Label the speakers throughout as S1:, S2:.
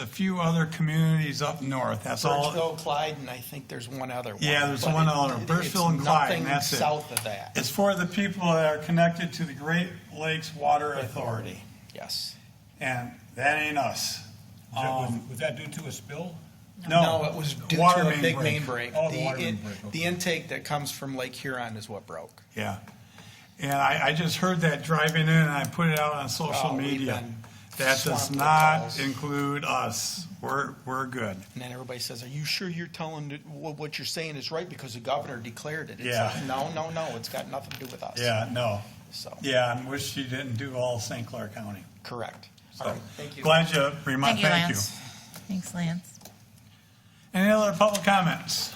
S1: a few other communities up north, that's all.
S2: Birchville, Clyde, and I think there's one other one.
S1: Yeah, there's
S2: but
S1: one
S2: it-
S1: other,
S2: it-
S1: Birchville
S2: it's
S1: and Clyde,
S2: nothing
S1: and that's it.
S2: South of that
S1: It's for the people that are connected to the Great Lakes Water Authority,
S2: authority, yes.
S1: and that ain't us.
S3: Is that- Was
S1: Um,
S3: was that due to a spill?
S1: No.
S2: it was due
S1: water
S2: to a big main break.
S3: Oh, the
S2: The
S3: water main
S2: in-
S3: break, okay.
S2: The intake that comes from Lake Huron is what broke.
S1: Yeah. And I, I just heard that driving in and I put it out on social
S2: Oh, we've
S1: media.
S2: been
S1: That does
S2: swamped with
S1: not
S2: calls.
S1: include us. We're, we're good.
S2: And then everybody says, are you sure you're telling, the- wha- what you're saying is right because the governor declared it? It's
S1: Yeah.
S2: like, No, no, no, it's got nothing to do with us.
S1: Yeah, no.
S2: So,
S1: Yeah, and wish you didn't do all St. Clair County.
S2: correct. All
S1: So
S2: right, thank you.
S1: Glad you remind,
S4: Thank you,
S1: thank you.
S4: Lance. Thanks, Lance.
S1: Any other public comments?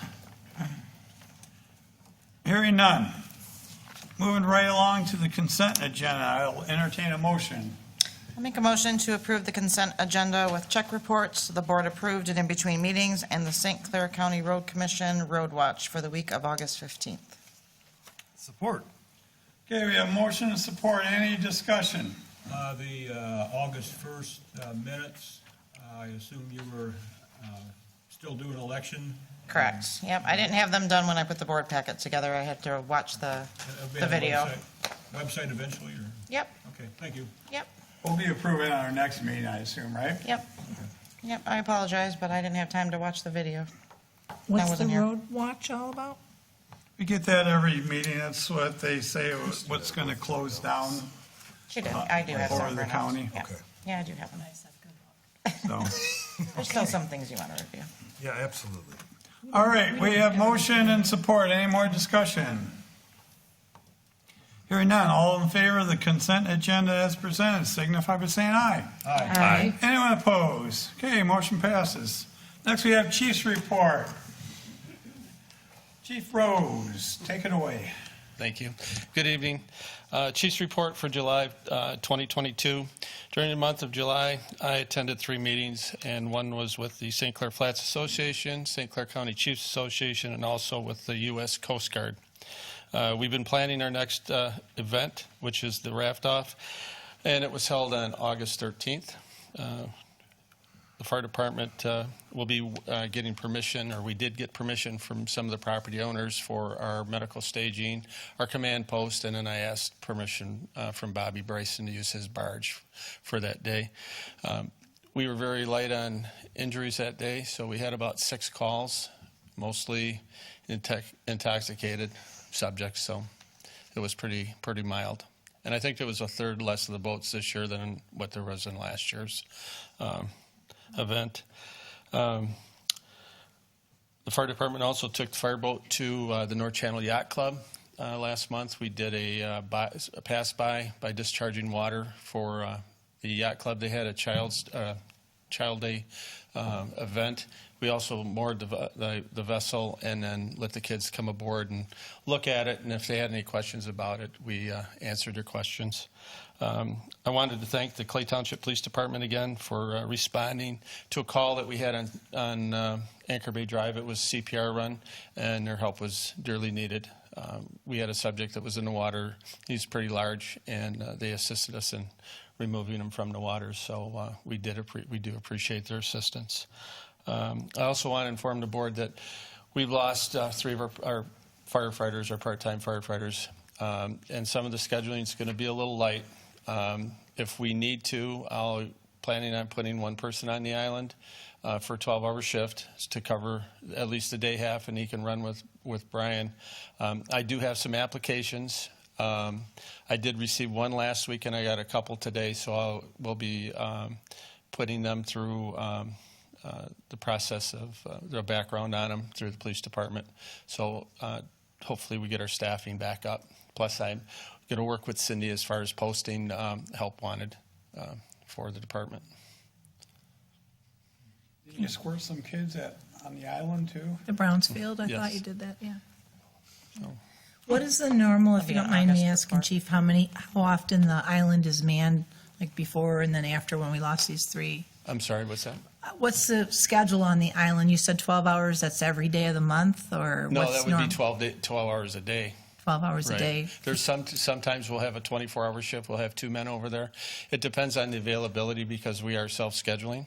S1: Hearing none. Moving right along to the consent agenda, I'll entertain a motion.
S4: I'll make a motion to approve the consent agenda with check reports the board approved and in between meetings and the St. Clair County Road Commission Road Watch for the week of August 15th.
S5: Support.
S1: Okay, we have motion and support. Any discussion?
S3: Uh, The uh, August 1st uh, minutes, uh, I assume you were uh, still doing election?
S4: Correct. Yep, I didn't have them done when I put the board packet together. I had to watch the,
S3: That'll be
S4: the
S3: on
S4: video.
S3: uh, website- Website eventually, or,
S4: Yep,
S3: okay, thank you.
S4: yep,
S1: We'll be approving on our next meeting, I assume, right?
S4: yep. Yep, I apologize, but I didn't have time to watch the video.
S6: What's the
S4: wasn't here.
S6: road watch all about?
S1: We get that every meeting, that's what they say, what's going to close down,
S4: She did, I do have
S1: Or
S4: some.
S1: the
S4: printouts.
S1: county.
S4: Yeah.
S5: Okay.
S4: Yeah, I do have them.
S1: so.
S4: There's still some things you want to review.
S5: Yeah, absolutely.
S1: All right, we have motion and support, any more discussion? Hearing none, all in favor of the consent agenda as presented, signify by saying aye.
S4: Aye.
S1: Anyone opposed? Okay, motion passes. Next, we have chief's report. Chief Rose, take it away.
S7: Thank you. Good evening. Uh, Chief's report for July uh, 2022. During the month of July, I attended three meetings, and one was with the St. Clair Flats Association, St. Clair County Chiefs Association, and also with the U.S. Coast Guard. Uh, We've been planning our next uh, event, which is the raft off, and it was held on August 13th. Uh, the fire department uh, will be uh, getting permission, or we did get permission from some of the property owners for our medical staging, our command post, and then I asked permission uh, from Bobby Bryson to use his barge for that day. Um, We were very light on injuries that day, so we had about six calls, mostly intox- intoxicated subjects, so it was pretty, pretty mild. And I think there was a third less of the boats this year than what there was in last year's. um, event. Um, the fire department also took the fireboat to uh, the North Channel Yacht Club uh, last month. We did a, uh, by, a pass by by discharging water for uh, the yacht club. They had a child's uh, child day um, event. We also moored the, ve- the, the vessel and then let the kids come aboard and look at it. And if they had any questions about it, we uh, answered their questions. Um, I wanted to thank the Clay Township Police Department again for uh, responding to a call that we had on, on uh, Anchor Bay Drive. It was CPR run, and their help was dearly needed. Um, we had a subject that was in the water. He's pretty large, and uh, they assisted us in removing him from the water. So uh, we did appre- we do appreciate their assistance. Um, I also want to inform the board that we've lost uh, three of our, our firefighters, our part-time firefighters, um, and some of the scheduling is going to be a little light. Um, if we need to, I'll planning on putting one person on the island uh, for a 12-hour shift to cover at least the day half, and he can run with with Brian. Um, I do have some applications. Um, I did receive one last week, and I got a couple today, so I'll we'll be um, putting them through. Um, uh, the process of uh, their background on them through the police department. So uh, hopefully we get our staffing back up. Plus, I'm going to work with Cindy as far as posting um, help wanted uh, for the department.
S1: Can you squirt some kids at, on the island too?
S6: The Brownsfield, I thought
S7: Yes.
S6: you did that, yeah.
S7: So-
S6: What is the normal, if
S4: Maybe
S6: you don't
S4: an
S6: mind me
S4: August
S6: asking,
S4: report.
S6: Chief, how many, how often the island is manned, like before and then after when we lost these three?
S7: I'm sorry, what's that?
S6: Uh, What's the schedule on the island? You said twelve hours, that's every day of the month, or
S7: No,
S6: what's
S7: that would
S6: norm-
S7: be 12, day, 12 hours a day.
S6: Twelve hours a
S7: Right.
S6: day?
S7: There's some, sometimes we'll have a 24-hour shift, we'll have two men over there. It depends on the availability because we are self-scheduling.